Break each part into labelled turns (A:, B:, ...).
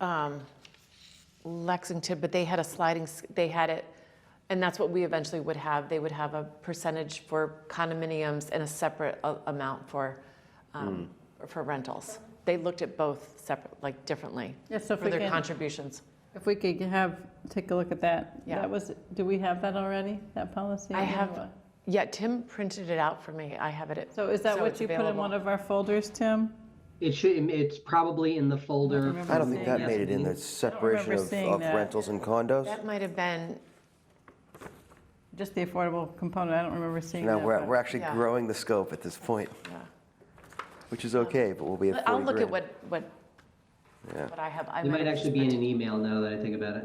A: um, Lexington, but they had a sliding, s- they had it, and that's what we eventually would have. They would have a percentage for condominiums and a separate a- amount for, um,
B: Hmm.
A: for rentals. They looked at both separate, like differently
C: Yeah, so if
A: for
C: we
A: their
C: can,
A: contributions.
C: if we could have, take a look at that.
A: Yeah.
C: That was, do we have that already, that policy?
A: I have-
C: Or-
A: Yeah, Tim printed it out for me. I have it at
C: So is that
A: so
C: what
A: it's
C: you put in
A: available.
C: one of our folders, Tim?
D: It should, it's probably in the folder.
C: remember
B: I don't think
C: seeing
B: that made it in the separation of
C: seeing
B: of
C: that.
B: rentals and condos.
A: That might have been,
C: Just the affordable component, I don't remember seeing
B: No,
C: that.
B: we're,
C: but-
B: we're actually
A: Yeah.
B: growing the scope at this point,
A: yeah.
B: which is okay, but we'll be at 40
A: I'll look at
B: grand.
A: what, what,
B: Yeah.
A: what I have. I
D: It might
A: have
D: actually be in an e- email now that I think about it.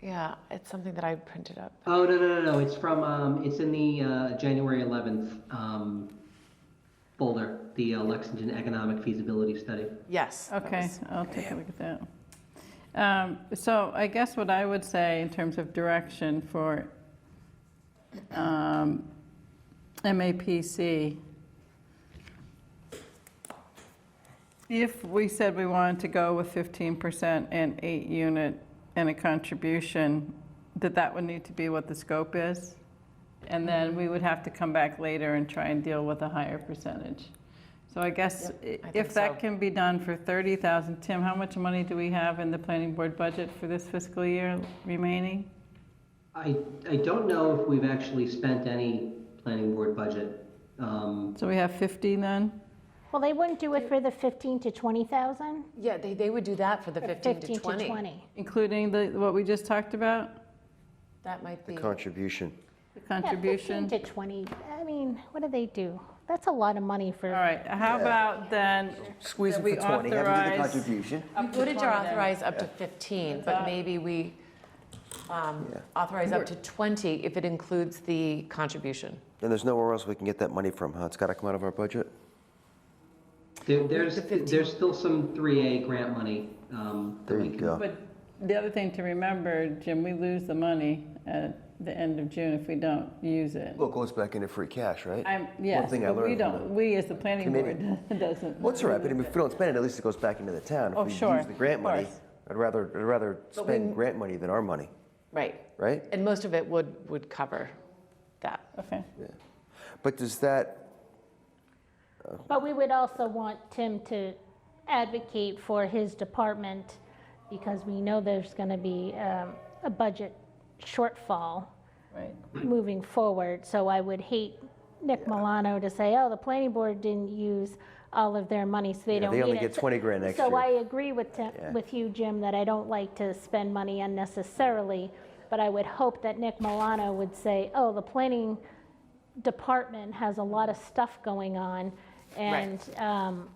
A: Yeah, it's something that I printed up.
D: Oh, no, no, no, no, it's from, um, it's in the, uh, January eleventh, um, folder, the uh, Lexington Economic Feasibility Study.
A: Yes. that
C: Okay,
A: was-
C: I'll take a look at that. Um, So I guess what I would say in terms of direction for um, MAPC, if we said we wanted to go with 15% and eight unit and a contribution, that that would need to be what the scope is? And then we would have to come back later and try and deal with a higher percentage. So I guess
A: I
C: i-
A: think
C: if that
A: so.
C: can be done for 30,000, Tim, how much money do we have in the planning board budget for this fiscal year remaining?
D: I, I don't know if we've actually spent any planning board budget. Um,
C: So we have 50 then?
E: Well, they wouldn't do it for the 15 to 20,000?
A: Yeah, they, they would do that for the 15 to 20.
C: Including the, what we just talked about,
A: That might
B: The
A: be,
B: contribution.
C: the
E: Yeah, 15
C: contribution?
E: to 20, I mean, what do they do? That's a lot of money
C: All
E: for,
C: right, how about then,
B: Squeeze
C: That
B: it
C: we
B: for 20, have them do the
C: authorize-
B: contribution.
A: footage are authorized up to 15, but maybe we um,
B: Yeah.
A: authorize up to 20 if it includes the contribution.
B: And there's nowhere else we can get that money from, huh? It's got to come out of our budget?
D: there, there's,
A: The 15.
D: there's still some three A grant money, um, that
B: There
D: we
B: you
D: can
B: go.
C: but the other thing to remember, Jim, we lose the money at the end of June if we don't use it.
B: Well, it goes back into free cash, right?
C: I'm, yes,
B: thing I
C: but we
B: learned from
C: don't, we as the planning
B: committee-
C: board doesn't.
B: Well, it's all right, but if we don't spend it, at least it goes back into the town.
C: Oh,
B: If
C: sure,
B: we use the grant
C: of
B: money,
C: course.
B: I'd rather, I'd rather spend grant money than our money,
A: Right.
B: right?
A: And most of it would, would cover that.
C: Okay,
B: But does that,
E: but we would also want Tim to advocate for his department because we know there's going to be um, a budget shortfall
C: right.
E: moving forward. So I would hate Nick Milano to say, oh, the planning board didn't use all of their money, so they
B: Yeah,
E: don't need
B: they
E: it.
B: only get 20 grand next
E: So
B: year.
E: I agree with, Tim-
B: Yeah.
E: with you, Jim, that I don't like to spend money unnecessarily, but I would hope that Nick Milano would say, oh, the planning department has a lot of stuff going on, and, um,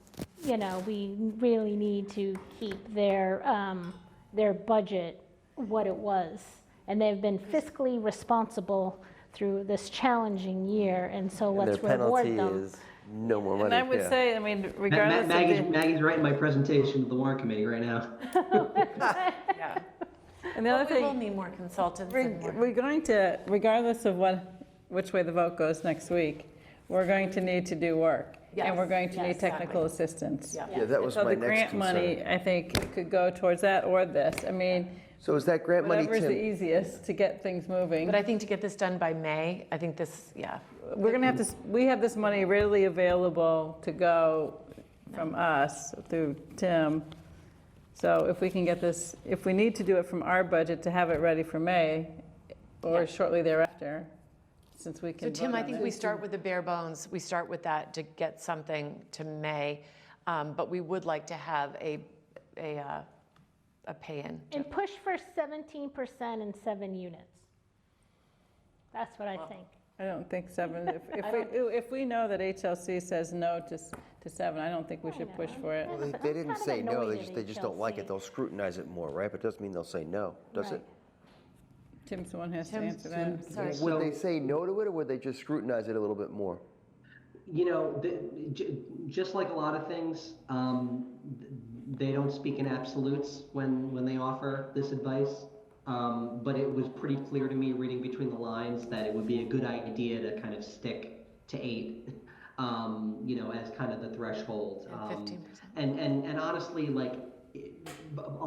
E: you know, we really need to keep their, um, their budget what it was. And they've been fiscally responsible through this challenging year, and so
B: and their
E: let's reward
B: penalty
E: them.
B: is no more money?
C: And I would
B: Yeah.
C: say, I mean,
D: Ma- Ma-
C: regardless of
D: Maggie's,
C: the,
D: Maggie's writing my presentation to the warrant committee right now.
A: Yeah.
C: and the other
A: We will
C: thing,
A: need more consultants and
C: reg-
A: more.
C: we're going to, regardless of what, which way the vote goes next week, we're going to need to do work. And we're
A: Yes,
C: going to
A: yes,
C: need technical
A: exactly.
C: assistance.
A: Yeah.
B: Yeah, that was
C: So
B: my
C: the
B: next
C: grant
B: concern.
C: money, I think, could go towards that or this. I mean,
B: So is that grant money,
C: whatever's the
B: Tim?
C: easiest to get things moving.
A: But I think to get this done by May, I think this, yeah.
C: We're gonna have to, s- we have this money readily available to go from us through Tim. So if we can get this, if we need to do it from our budget to have it ready for May
A: Yeah.
C: or shortly thereafter, since we
A: So
C: can
A: Tim,
C: vote
A: I
C: on
A: think
C: it.
A: we start with the bare bones. We start with that to get something to May, um, but we would like to have a a uh, a pay-in.
E: And push for seventeen percent in seven units. That's what I think.
C: I don't think seven, if, if we, if we know that HLC says no to, s- to seven, I don't think we should push for it.
B: They-
E: But
B: They
E: I'm
B: didn't
E: kind of
B: say no,
E: annoyed
B: they
E: at
B: just, they just don't like it.
E: HLC.
B: They'll scrutinize it more, right? But it doesn't mean they'll say no, does
E: Right.
B: it?
C: Tim's the one who has to
A: Tim's-
C: answer that.
A: Sorry.
B: Would
D: So-
B: they say no to it, or would they just scrutinize it a little bit more?
D: You know, the, j- just like a lot of things, um, th- they don't speak in absolutes when, when they offer this advice. Um, but it was pretty clear to me reading between the lines that it would be a good idea to kind of stick to eight, um, you know, as kind of the threshold. Um,
A: 15%.
D: And, and, and honestly, like, it- b-